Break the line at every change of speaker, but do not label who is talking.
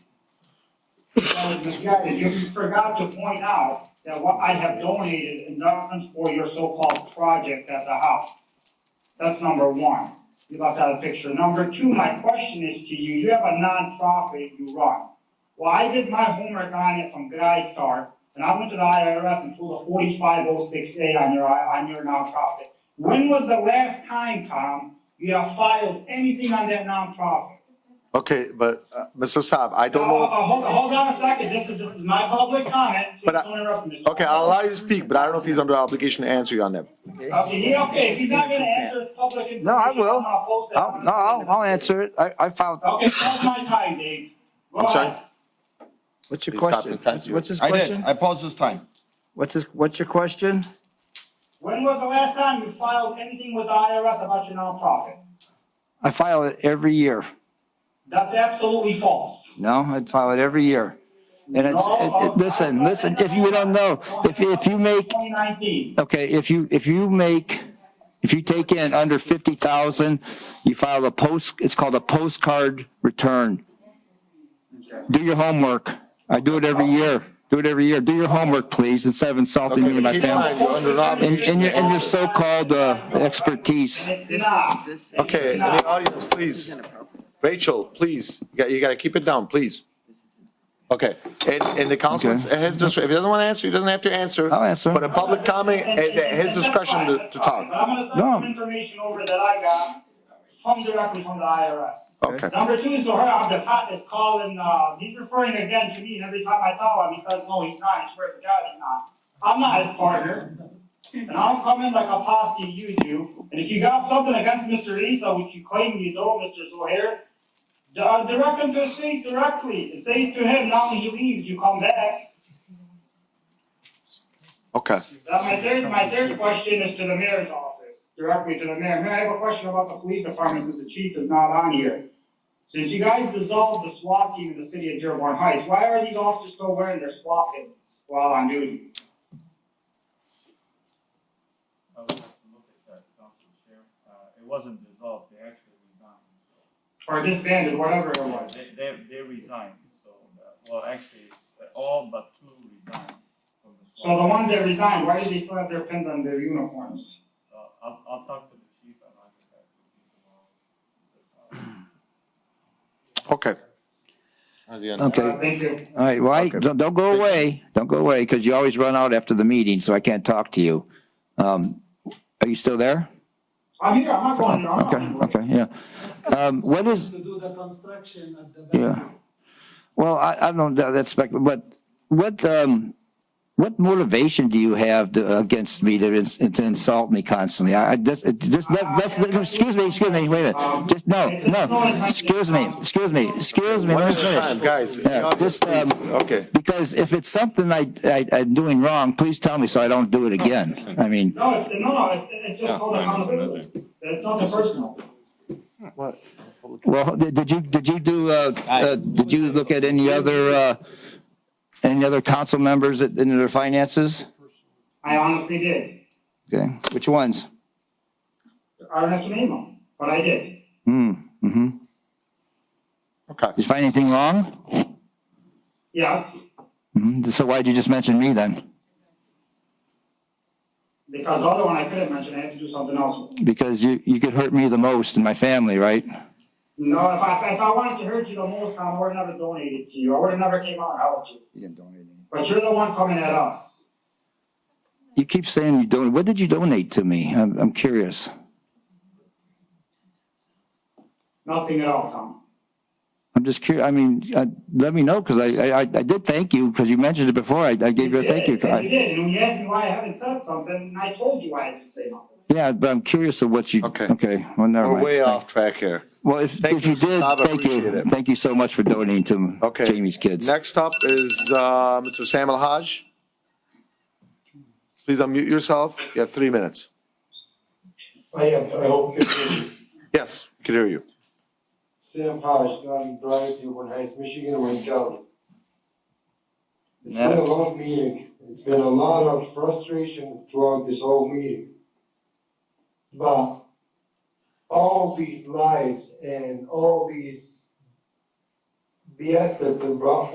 um, Ms. Guy, you forgot to point out that what I have donated endowments for your so-called project at the house. That's number one. You left out a picture. Number two, my question is to you, you have a nonprofit you run. Well, I did my homework on it from GuideStar, and I went to the IRS and pulled a forty-five oh six A on your, on your nonprofit. When was the last time, Tom, you have filed anything on that nonprofit?
Okay, but, uh, Mr. Saab, I don't
No, uh,
know,
uh, Hold, hold on a second, this is, this is my public comment, please
But I-
don't interrupt me. Mr.
okay, I'll allow you to speak, but I don't know if he's under obligation to answer you on that.
Okay, he, okay, if he's not gonna answer, it's public information.
No, I will.
I'm gonna post it
I'll,
on-
no, I'll, I'll answer it. I, I filed,
Okay, that's my time, Dave. Go
I'm sorry?
ahead.
what's your
Please stop
question?
and thank
What's
you.
what's his
I did,
question?
I paused this time.
What's his, what's your question?
When was the last time you filed anything with the IRS about your nonprofit?
I file it every year.
That's absolutely false.
No, I file it every year. And it's, it- it- listen, listen, if you don't know, if, you- if you make,
Twenty nineteen.
okay, if you, if you make, if you take in under fifty thousand, you file a post, it's called a postcard return. Do your homework. I do it every year. Do it every year. Do your homework, please, instead of insulting me and my
Keep in mind,
family.
you're under an
And,
obligation.
and your, and your so-called, uh, expertise.
It's
This
not.
is, this is.
Okay, in the audience, please, Rachel, please, you gotta, you gotta keep it down, please. Okay, and, and the councilman, at his discretion, if he doesn't wanna answer, he doesn't have to answer.
I'll answer.
But a public comment is at his discretion to, to
But
talk.
I'm gonna send
No.
some information over that I got from directly from the IRS.
Okay,
Number two is to her, I'm the cop is calling, uh, he's referring again to me, and every time I tell him, he says, no, he's not, he swears to God he's not. I'm not his partner, and I don't come in like a posse you do, and if you got something against Mr. Isa, which you claim you don't, Mr. Zohair, d- uh, direct him to his face directly, and say to him, now when he leaves, you come back.
okay.
Now, Uh, my third, my third question is to the mayor's office, directly to the mayor, mayor, I have a question about the police department, since the chief is not on here. Since you guys dissolved the SWAT team in the city of Dearborn Heights, why are these officers still wearing their SWAT pins while on duty?
I would have to look at that, Council Chair. Uh, it wasn't dissolved, they actually resigned.
Or disbanded, whatever it
Yeah,
was.
They, they, they resigned, so, uh, well, actually, uh, all but two resigned from the
So the
squad.
ones that resigned, why do they still have their pins on their uniforms?
Uh, I'll, I'll talk to the chief and I'll get back to you tomorrow.
Okay.
Okay.
Uh, Thank you.
All right, well, I- don't, don't go away. Don't go away, because you always run out after the meeting, so I can't talk to you. Um, are you still there?
I'm here, I'm not going here, I'm not.
Okay,
going
okay, yeah. Um, what is,
to do the construction at the back.
yeah. Well, I, I don't, know, that's, spec- but what, um, what motivation do you have to, against me to, ins- to insult me constantly? I, I just, it- just, let- let's, excuse me, excuse me, wait a minute. Just, no, no, excuse me, excuse me, excuse me.
One
let
at
me
a
finish.
time, guys. in the
Yeah,
audience,
just, um,
please. Okay.
Because if it's something I, I, I'm doing wrong, please tell me so I don't do it again. I mean,
No, it's, no, no, it's, it's just called accountability. It's not the personal.
What?
well, did did you, did you do, uh, uh, did you look at any other, uh, any other council members that- in their finances?
I honestly did.
Okay, which ones?
I don't have to name them, but I did.
Hmm, mm-hmm.
Okay.
Did you find anything wrong?
Yes,
Mhm. So why'd you just mention me then?
because the other one I couldn't mention, I had to do something else with.
Because you, you could hurt me the most and my family, right?
No, if I, if I wanted to hurt you the most, I would have never donated to you. I would have never came out and helped you.
You didn't donate any.
But you're the one coming at us.
You keep saying you don't, what did you donate to me? I'm, I'm curious.
Nothing at all, Tom.
I'm just curious. I mean, uh, let me know because I, I, I did thank you because you mentioned it before. I, I gave you a thank you
did, and You
card.
did, and when you asked me why I haven't said something, and I told you I didn't say nothing.
Yeah, but I'm curious of what you.
Okay.
Okay. Well, never
We're
mind.
way off track here.
Well, if,
Thank
if you
you,
did,
Saab, I
thank
appreciate
you.
it.
Thank you so much for donating to
Okay.
Jamie's kids.
Next up is, uh, Mr. Sam Alhaj. Please unmute yourself. You have three minutes.
I am, I hope you can
Yes, we can hear you.
Sam Hodge, Naughty Drive, Dearborn Heights, Michigan, Wayne County. It's been a
Next.
long meeting, it's been a lot of frustration throughout this whole meeting. But all these lies and all these BS that's been brought